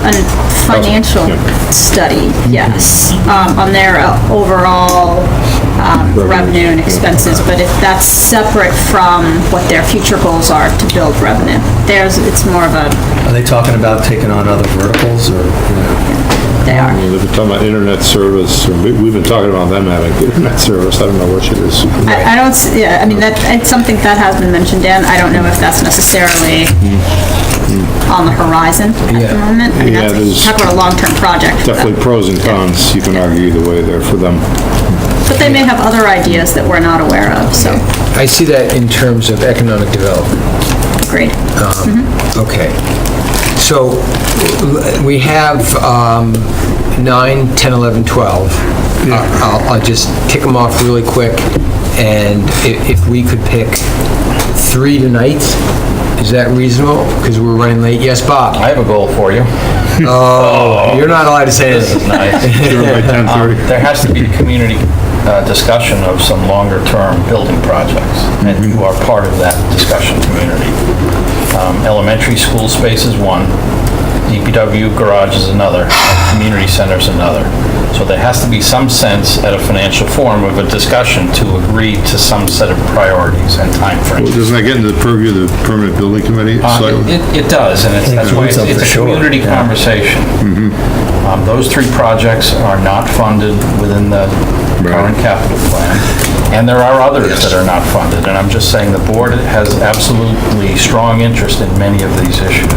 a financial study, yes, um, on their overall um, revenue and expenses, but if that's separate from what their future goals are to build revenue. Theirs, it's more of a, Are they talking about taking on other verticals or, you know? they are. They've been talking about internet service, or we- we've been talking about them having internet service, I don't know what it is. I I don't, s- yeah, I mean, that, it's something that has been mentioned, Dan, I don't know if that's necessarily on the horizon at the Yeah. moment. I mean, Yeah, that's, a- there's- talk about a long-term project. but- Definitely pros and cons, you can argue either way there for them. But they may have other ideas that we're not aware of, so, I see that in terms of economic development. great. Okay. So l- we have um, 9, 10, 11, 12. I'll Uh, I'll- I'll just tick them off really quick, and i- if we could pick three tonight, is that reasonable? Because we're running late. Yes, Bob? I have a goal for you. You're not allowed to say This anything. is nice. Sure, by 10:30. Um, There has to be community uh, discussion of some longer-term building projects, and you are part of that discussion community. Um, Elementary school space is one, DPW garage is another, and community center is another. So there has to be some sense at a financial forum of a discussion to agree to some set of priorities and timeframes. Well, Doesn't that get into the purview of the permanent building committee? Uh, slightly? It, it- it does, and it's, that's why Includes it's them it's for a sure, community yeah. conversation. Um, Those three projects are not funded within the current capital plan, and there are others that are not funded, and I'm just saying the board has absolutely strong interest in many of these issues.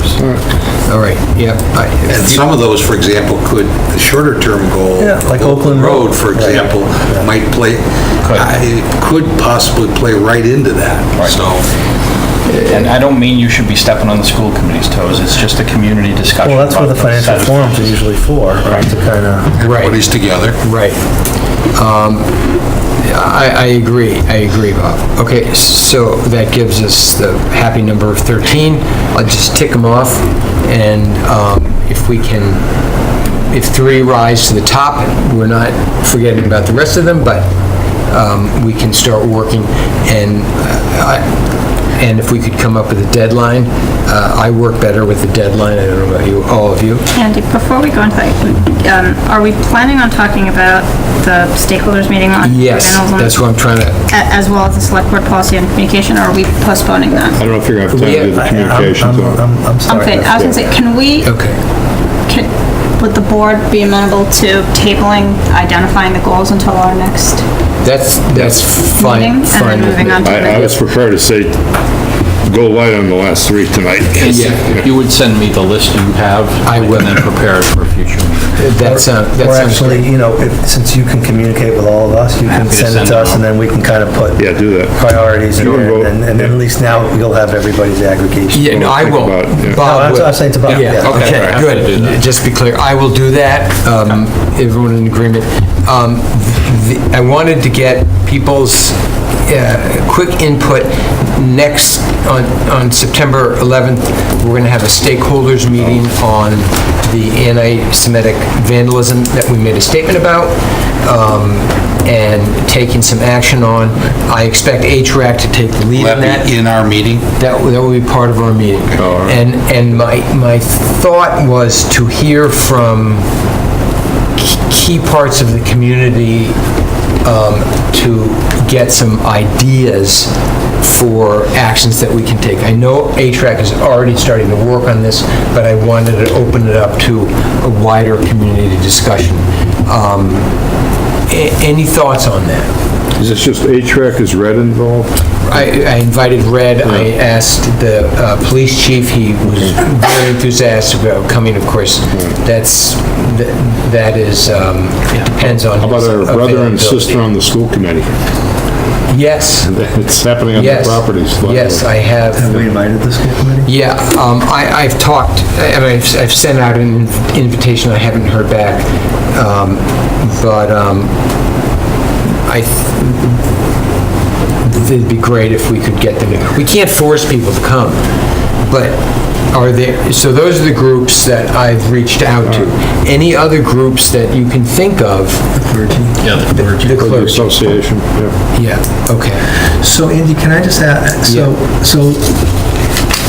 All right, yep. I- And some of those, for example, could, the shorter-term goal. Yeah, like Oakland Road. for example, might play, Could. I- it could possibly play right into that, so. And I don't mean you should be stepping on the school committee's toes, it's just a community discussion. Well, that's what about the those financial set of- forums are usually for, right, to kind of, Everybody's together. Right. Um, I, I agree, I agree, Bob. Okay, so that gives us the happy number of 13. I'll just tick them off, and um, if we can, if three rise to the top, we're not forgetting about the rest of them, but um, we can start working, and uh, I, and if we could come up with a deadline, uh, I work better with a deadline, I don't know about you, all of you. Andy, before we go into that, um, are we planning on talking about the stakeholders meeting on? Yes, vandalism that's what I'm trying to, a- As well as the select board policy and communication, or are we postponing I that? don't know if you're gonna have time to do the I- I'm- communications. I'm, on it. I'm, I'm sorry. Okay, I was gonna say, can we, okay. can- Would the board be amenable to tabling, identifying the goals until our next? That's, that's Meeting, and fine. then fine with moving me. on to- I, I was prepared to say, go light on the last three tonight. If You would send me the list you have. I will. And then prepare it for a future meeting. That sounds, that Or sounds actually, great. you know, if, since you can communicate with all of us, you can Happy to send it send to it us, and all. then we can kind of put Yeah, do that. priorities in You can there, vote. and and then at least now you'll have everybody's aggregation. Yeah, no, I Think will. about it, yeah. No, Bob that's what will. I'm saying, it's about, Yeah, yeah. okay. okay, I have to do good. that. Just to be clear, I will do that. Um, Everyone in agreement. Um, the- I wanted to get people's uh, quick input. Next, on on September 11th, we're going to have a stakeholders meeting on the anti-Semitic vandalism that we made a statement about um, and taking some action on. I expect HRAC to take the lead Will in that. that be in our meeting? That, that will be part of our meeting. And, and my, my thought was to hear from k- key parts of the community um, to get some ideas for actions that we can take. I know HRAC is already starting to work on this, but I wanted to open it up to a wider community discussion. Um, a- Any thoughts on that? Is this just HREC, is red involved? I I invited Red, I asked the uh, police chief, he was very enthusiastic about coming, of course. That's, th- that is, um, depends on How about his our brother and sister availability. on the school committee? Yes, It's happening on their yes. properties. Yes, I have. Have we invited the school committee? Yeah, um, I, I've talked, and I've, I've sent out an invitation, I haven't heard back, um, but, um, I, th- it'd be great if we could get them, to- we can't force people to come, but are there, so those are the groups that I've reached out to. Any other groups that you can think of? Yeah, the clergy. The Or the clergy, association, yeah. yeah, okay. So Andy, can I just ask, so, so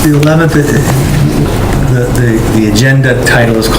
the 11th, the, the- the agenda title is called